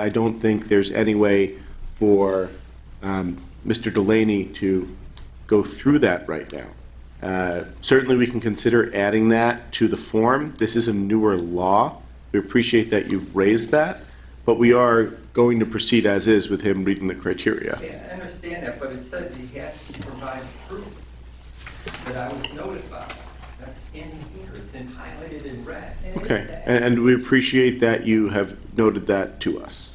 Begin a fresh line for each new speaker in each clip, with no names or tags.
I don't think there's any way for um, Mr. Delaney to go through that right now. Uh, Certainly, we can consider adding that to the form. This is a newer law. We appreciate that you've raised that, but we are going to proceed as is with him reading the criteria.
Yeah, I understand that, but it says he has to provide proof that I was notified. That's in here, it's in highlighted in red.
Okay, and and we appreciate that you have noted that to us.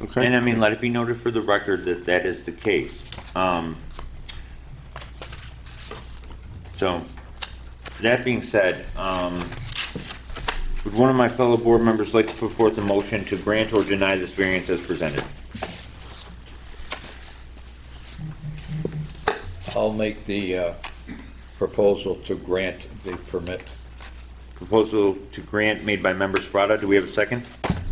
And I
Okay,
mean, let it be noted for the record that that is the case. Um, So, that being said, um, would one of my fellow board members like to put forth a motion to grant or deny this variance as presented?
I'll make the uh, proposal to grant the permit.
Proposal to grant made by member Sprata, do we have a second?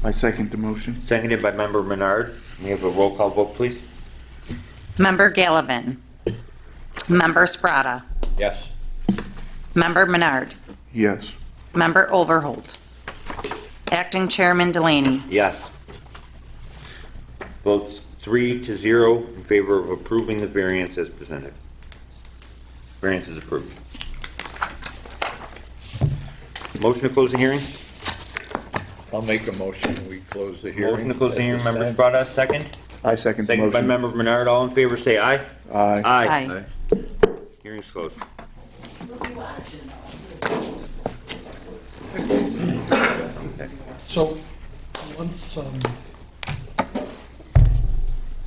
I second the motion.
Seconded by member Menard. We have a roll call vote, please.
Member Gallivan. Member Sprata.
Yes.
Member Menard.
Yes.
Member Overholt. Acting Chairman Delaney.
Yes. Votes three to zero in favor of approving the variance as presented. Variance is approved. Motion to close the hearing?
I'll make a motion, we close the hearing.
Motion to close the
at
hearing,
this
members
time.
brought us second.
I second the
Second by
motion.
member Menard, all in favor, say aye.
Aye.
Aye.
Aye.
Hearing's closed.
So, once um,